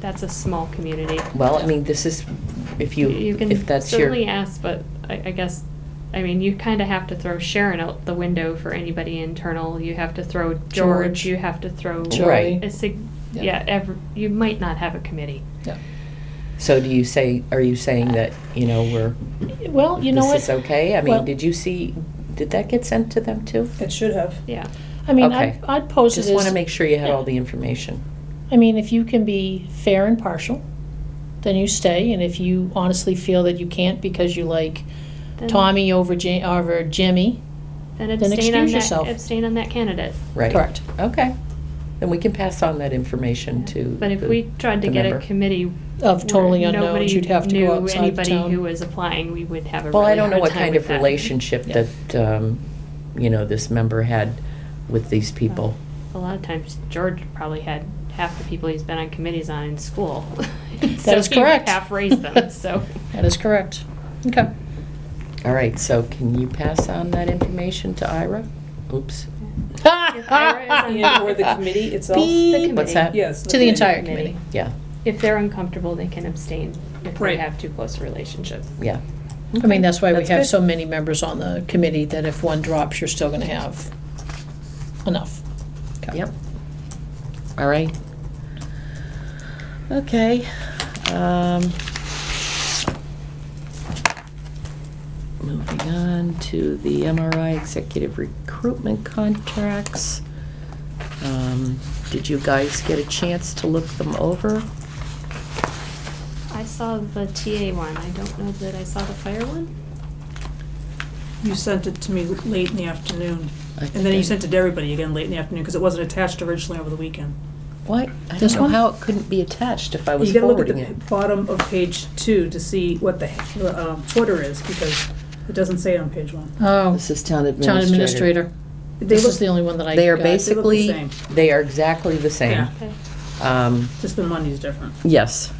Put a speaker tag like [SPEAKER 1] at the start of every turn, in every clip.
[SPEAKER 1] that's a small community.
[SPEAKER 2] Well, I mean, this is, if you,
[SPEAKER 1] can
[SPEAKER 2] if that's your.
[SPEAKER 1] certainly ask, but I, I guess, I mean, you kind of have to throw Sharon out the window for anybody internal. You have to throw George.
[SPEAKER 3] George.
[SPEAKER 1] You have to throw
[SPEAKER 2] George. Right.
[SPEAKER 1] a sig-
[SPEAKER 3] Yeah.
[SPEAKER 1] yeah. ev you might not have a committee.
[SPEAKER 3] Yeah.
[SPEAKER 2] So do you say, are you saying that, you know, we're,
[SPEAKER 3] Well, you know what?
[SPEAKER 2] this is okay? I mean,
[SPEAKER 3] Well-
[SPEAKER 2] did you see, did that get sent to them too?
[SPEAKER 4] It should have.
[SPEAKER 1] Yeah.
[SPEAKER 3] I mean,
[SPEAKER 2] Okay.
[SPEAKER 3] I'd, I'd pose it
[SPEAKER 2] Just want to
[SPEAKER 3] as,
[SPEAKER 2] make sure you had
[SPEAKER 3] Yeah.
[SPEAKER 2] all the information.
[SPEAKER 3] I mean, if you can be fair and partial, then you stay, and if you honestly feel that you can't because you like
[SPEAKER 1] Then-
[SPEAKER 3] Tommy over Ja- over Jimmy,
[SPEAKER 1] Then
[SPEAKER 3] then
[SPEAKER 1] abstain on
[SPEAKER 3] excuse
[SPEAKER 1] that,
[SPEAKER 3] yourself.
[SPEAKER 1] Abstain on that candidate.
[SPEAKER 2] Right.
[SPEAKER 3] Correct.
[SPEAKER 2] Okay. Then we can pass on that information to.
[SPEAKER 1] But if
[SPEAKER 2] the-
[SPEAKER 1] we tried to
[SPEAKER 2] the
[SPEAKER 1] get a
[SPEAKER 2] member.
[SPEAKER 1] committee
[SPEAKER 3] of totally
[SPEAKER 1] where
[SPEAKER 3] unknowns,
[SPEAKER 1] nobody
[SPEAKER 3] you'd have to
[SPEAKER 1] knew
[SPEAKER 3] go outside the
[SPEAKER 1] Anybody who
[SPEAKER 3] town.
[SPEAKER 1] was applying, we would have a
[SPEAKER 2] Well, I
[SPEAKER 1] really
[SPEAKER 2] don't know
[SPEAKER 1] hard
[SPEAKER 2] what
[SPEAKER 1] time
[SPEAKER 2] kind
[SPEAKER 1] with
[SPEAKER 2] of
[SPEAKER 1] that.
[SPEAKER 2] relationship
[SPEAKER 3] Yeah.
[SPEAKER 2] that, um, you know, this member had with these people.
[SPEAKER 1] A lot of times, George probably had half the people he's been on committees on in school.
[SPEAKER 3] That is correct.
[SPEAKER 1] Half raised them, so.
[SPEAKER 3] That is correct. Okay.
[SPEAKER 2] All right, so can you pass on that information to Ira? Oops.
[SPEAKER 4] And or the committee itself.
[SPEAKER 3] Beep.
[SPEAKER 2] What's that?
[SPEAKER 4] Yes.
[SPEAKER 3] To the entire
[SPEAKER 1] Committee.
[SPEAKER 3] committee.
[SPEAKER 2] Yeah,
[SPEAKER 1] If they're uncomfortable, they can abstain if they
[SPEAKER 4] Right.
[SPEAKER 1] have too close a relationship.
[SPEAKER 2] yeah.
[SPEAKER 3] I mean, that's why we
[SPEAKER 2] That's
[SPEAKER 3] have
[SPEAKER 2] good.
[SPEAKER 3] so many members on the committee, that if one drops, you're still gonna have enough. Okay.
[SPEAKER 2] Yep. All right. Okay. um, Moving on to the MRI executive recruitment contracts. Um, Did you guys get a chance to look them over?
[SPEAKER 1] I saw the TA one, I don't know that I saw the fire one.
[SPEAKER 4] You sent it to me late in the afternoon.
[SPEAKER 2] I
[SPEAKER 4] And then you
[SPEAKER 2] think-
[SPEAKER 4] sent it to everybody again late in the afternoon because it wasn't attached originally over the weekend.
[SPEAKER 2] What? I
[SPEAKER 3] This
[SPEAKER 2] don't know
[SPEAKER 3] one?
[SPEAKER 2] how it couldn't be attached if I was
[SPEAKER 4] You gotta look at
[SPEAKER 2] forwarding
[SPEAKER 4] the
[SPEAKER 2] it.
[SPEAKER 4] bottom of page two to see what the, the, um, order is because it doesn't say it on page one.
[SPEAKER 3] Oh,
[SPEAKER 2] This is town
[SPEAKER 3] town
[SPEAKER 2] administrator.
[SPEAKER 3] administrator.
[SPEAKER 4] They
[SPEAKER 3] This is the
[SPEAKER 4] look,
[SPEAKER 3] only one that I
[SPEAKER 2] They are
[SPEAKER 3] got.
[SPEAKER 2] basically,
[SPEAKER 4] uh, same.
[SPEAKER 2] they are exactly the same.
[SPEAKER 4] Yeah.
[SPEAKER 1] Okay.
[SPEAKER 2] Um,
[SPEAKER 4] just the money's different.
[SPEAKER 2] Yes,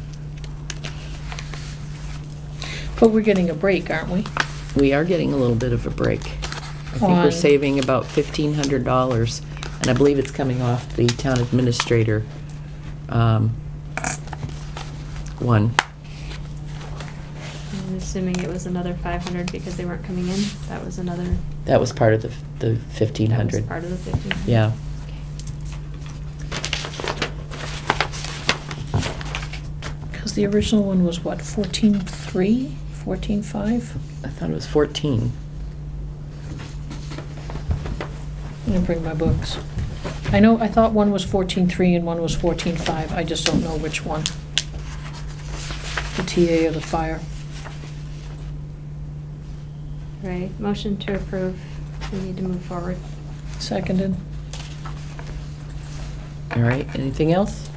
[SPEAKER 3] But we're getting a break, aren't we?
[SPEAKER 2] we are getting a little bit of a break. I think we're
[SPEAKER 3] On-
[SPEAKER 2] saving about fifteen hundred dollars, and I believe it's coming off the town administrator, um, one.
[SPEAKER 1] I'm assuming it was another five hundred because they weren't coming in, that was another.
[SPEAKER 2] That was part of the, the fifteen
[SPEAKER 1] that was
[SPEAKER 2] hundred.
[SPEAKER 1] Part of the fifteen hundred.
[SPEAKER 2] Yeah.
[SPEAKER 3] Because the original one was what, fourteen three, fourteen five?
[SPEAKER 2] I thought it was fourteen.
[SPEAKER 3] I'm gonna bring my books. I know, I thought one was fourteen three and one was fourteen five, I just don't know which one. The TA or the fire.
[SPEAKER 1] Right, motion to approve, we need to move forward.
[SPEAKER 3] Seconded.
[SPEAKER 2] All right, anything else?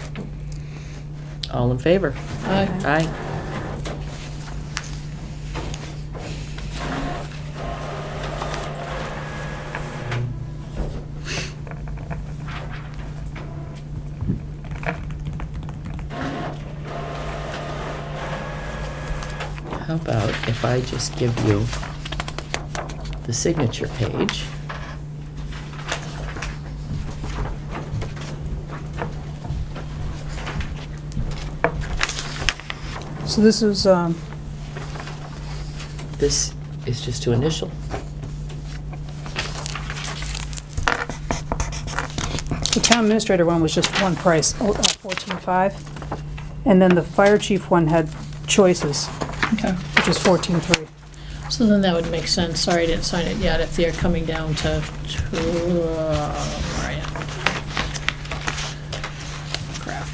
[SPEAKER 2] All in favor?
[SPEAKER 3] Aye.
[SPEAKER 2] Aye. How about if I just give you the signature page?
[SPEAKER 4] So this is, um,
[SPEAKER 2] This is just to initial.
[SPEAKER 4] The town administrator one was just one price, oh, fourteen-five, and then the fire chief one had choices,
[SPEAKER 3] Okay.
[SPEAKER 4] which is fourteen-three.
[SPEAKER 3] So then that would make sense, sorry I didn't sign it yet, if they're coming down to, to, uh, where am I? Crap.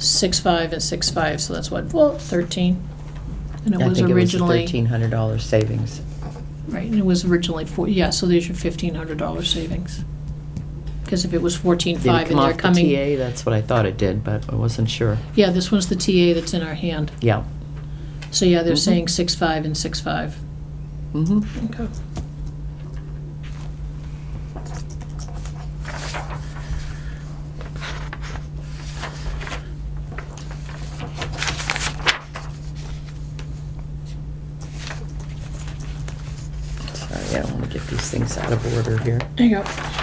[SPEAKER 3] Six five and six five, so that's what, well, thirteen? And it
[SPEAKER 2] I
[SPEAKER 3] was
[SPEAKER 2] think it was a
[SPEAKER 3] originally.
[SPEAKER 2] $1,300 savings.
[SPEAKER 3] Right, and it was originally four, yeah, so there's your fifteen hundred dollar savings. Because if it was fourteen
[SPEAKER 2] Did it
[SPEAKER 3] five
[SPEAKER 2] come
[SPEAKER 3] and they're
[SPEAKER 2] off the
[SPEAKER 3] coming,
[SPEAKER 2] TA? That's what I thought it did, but I wasn't sure.
[SPEAKER 3] yeah, this one's the TA that's in our hand.
[SPEAKER 2] Yeah.
[SPEAKER 3] So yeah, they're
[SPEAKER 2] Mhm.
[SPEAKER 3] saying six five and six five.
[SPEAKER 2] Mm-hmm.
[SPEAKER 3] Okay.
[SPEAKER 2] Sorry, I don't want to get these things out of order here.
[SPEAKER 3] There you go.